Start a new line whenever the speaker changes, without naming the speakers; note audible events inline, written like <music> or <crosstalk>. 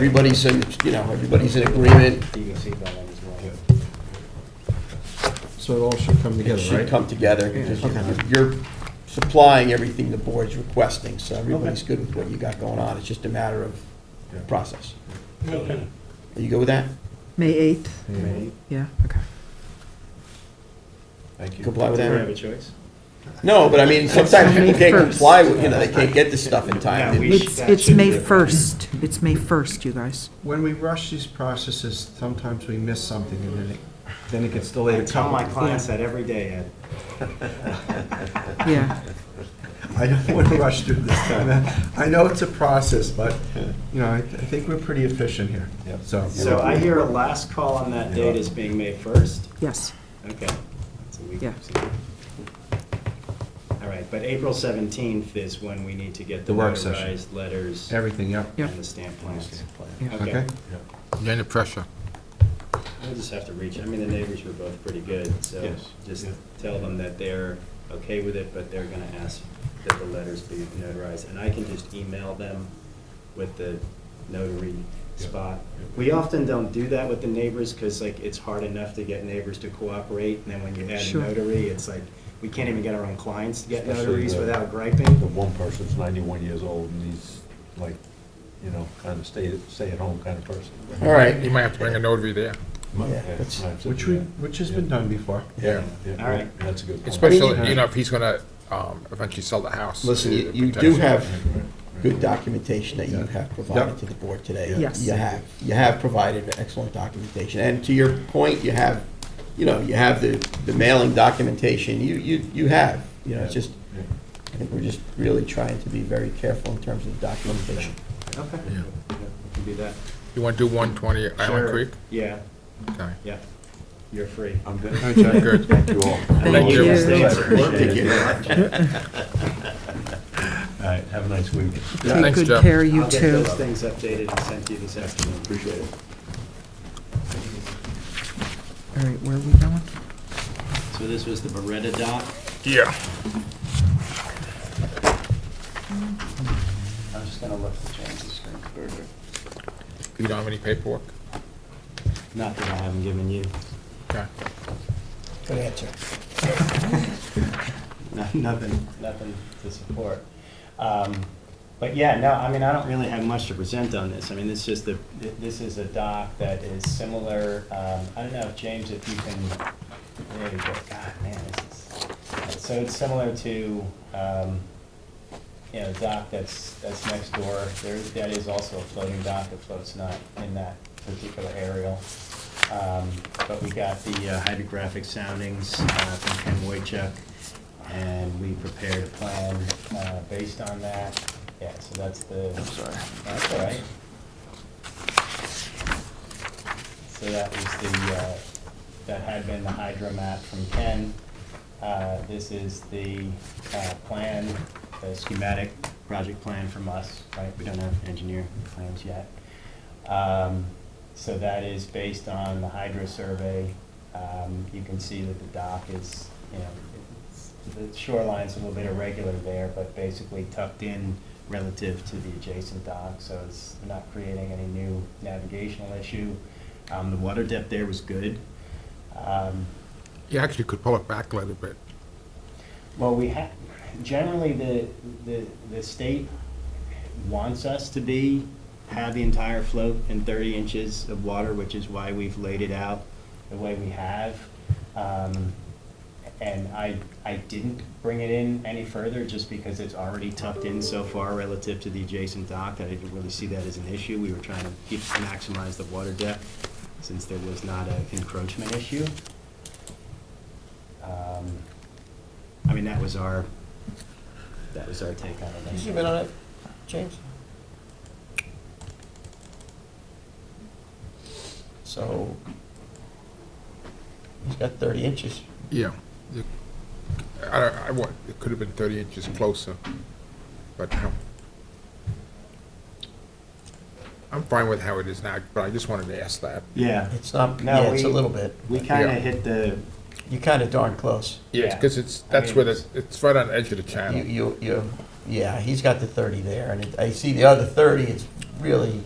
everybody's in, you know, everybody's in agreement,
You can see that one as well.
So it all should come
it
together,
should
right?
come together, because you're- you're supplying everything the board's requesting, so everybody's good with what you got going on, it's just a matter of process. Are you good with that?
May 8th,
Right.
yeah, okay.
Thank you.
Comply with
Do I
that?
have a choice?
No, but I mean, sometimes people can't
May
comply with, you know, they can't get this stuff in time.
Yeah, we-
It's,
that
it's
should
May
be a-
1st, it's May 1st, you guys.
When we rush these processes, sometimes we miss something and then it, then it gets delayed
I
a
tell
couple.
my clients that every day, Ed.
Yeah,
I don't want to rush through this time. I know it's a process, but, you know, I, I think we're pretty efficient here, so.
So I hear a last call on that date is being May 1st?
yes,
Okay. That's a week.
Yeah.
All right, but April 17th is when we need to get the
The work session.
notarized letters and
Everything, yep.
Yep.
the stamp plans.
Yeah.
Okay?
Okay.
You're under pressure.
We'll just have to reach, I mean, the neighbors were both pretty good, so
Yes.
just tell them that they're okay with it, but they're gonna ask that the letters be notarized. And I can just email them with the notary spot. We often don't do that with the neighbors, because like, it's hard enough to get neighbors to cooperate, and then when you add a
Sure.
notary, it's like, we can't even get our own clients to get
Especially
notaries
the-
without
The
griping.
one person's ninety-one years old and he's like, you know, kind of stay, stay at home kind of person.
All right,
You might have to bring a notary there,
Yeah, that's-
Which we, which has been done before.
yeah.
All right.
That's a good point.
Especially, you know, if he's gonna um, eventually sell the house.
listen, you
it
you do
protects you.
have good documentation that you have provided to the board today.
Yes.
You have, you have provided excellent documentation, and to your point, you have, you know, you have the, the mailing documentation, you, you, you have, you know, it's just,
Yeah.
I think we're just really trying to be very careful in terms of documentation.
Okay.
Yeah.
Yeah, we can do that.
You wanna do one twenty Island
Sure.
Creek?
Yeah,
Okay.
yeah. You're free.
I'm good.
Good.
Thank you all.
Thank
you.
you.
Stay in support.
Thank you.
All right, have a nice week.
take
Thanks,
good
Jeff.
care, you
I'll get
too.
those things updated and sent to you this afternoon. Appreciate it.
All right, where are we going?
So this was the Beretta dock.
Yeah.
I'm just gonna look the changes screen further.
You don't have any paperwork?
Not that I haven't given you.
Okay.
Good answer.
No- <laughs> Nothing, nothing to support. Um, But yeah, no, I mean, I don't really have much to present on this. I mean, it's just the, th- this is a dock that is similar, um, I don't know if, James, if you can, there you go, God, man, this is, so it's similar to, um, you know, the dock that's, that's next door. There, that is also a floating dock that floats not in that particular aerial. Um, But we got the uh, hydrographic soundings uh, from Ken Wojcik, and we prepared a plan uh, based on that. Yeah, so that's the. I'm sorry. That's all right. So that was the, uh, that had been the hydro map from Ken. Uh, This is the uh, plan, the schematic project plan from us, right? We don't have engineer plans yet. Um, So that is based on the hydro survey. Um, You can see that the dock is, you know, it's- the shoreline's a little bit irregular there, but basically tucked in relative to the adjacent dock, so it's not creating any new navigational issue. Um, The water depth there was good. Um,
You actually could pull it back a little bit.
well, we have, generally, the, the, the state wants us to be, have the entire float in thirty inches of water, which is why we've laid it out the way we have. Um, and I, I didn't bring it in any further, just because it's already tucked in so far relative to the adjacent dock, that I didn't really see that as an issue. We were trying to keep, maximize the water depth, since there was not an encroachment issue. Um, I mean, that was our, that was our take on it.
on it, James? So, he's got thirty inches.
Yeah. You- I, don't- I, wa- it could have been thirty inches closer, but um, no. I'm fine with how it is now, but I just wanted to ask that.
Yeah,
It's not,
No,
yeah, it's a
we-
little bit.
we kind of
Yeah.
hit the,
You're kind of darn close.
Yeah.
Because it's,
I
that's
mean,
where
it's-
the, it's right on the edge of
You,
the channel.
you, you, yeah, he's got the thirty there, and it- I see the other thirty, it's really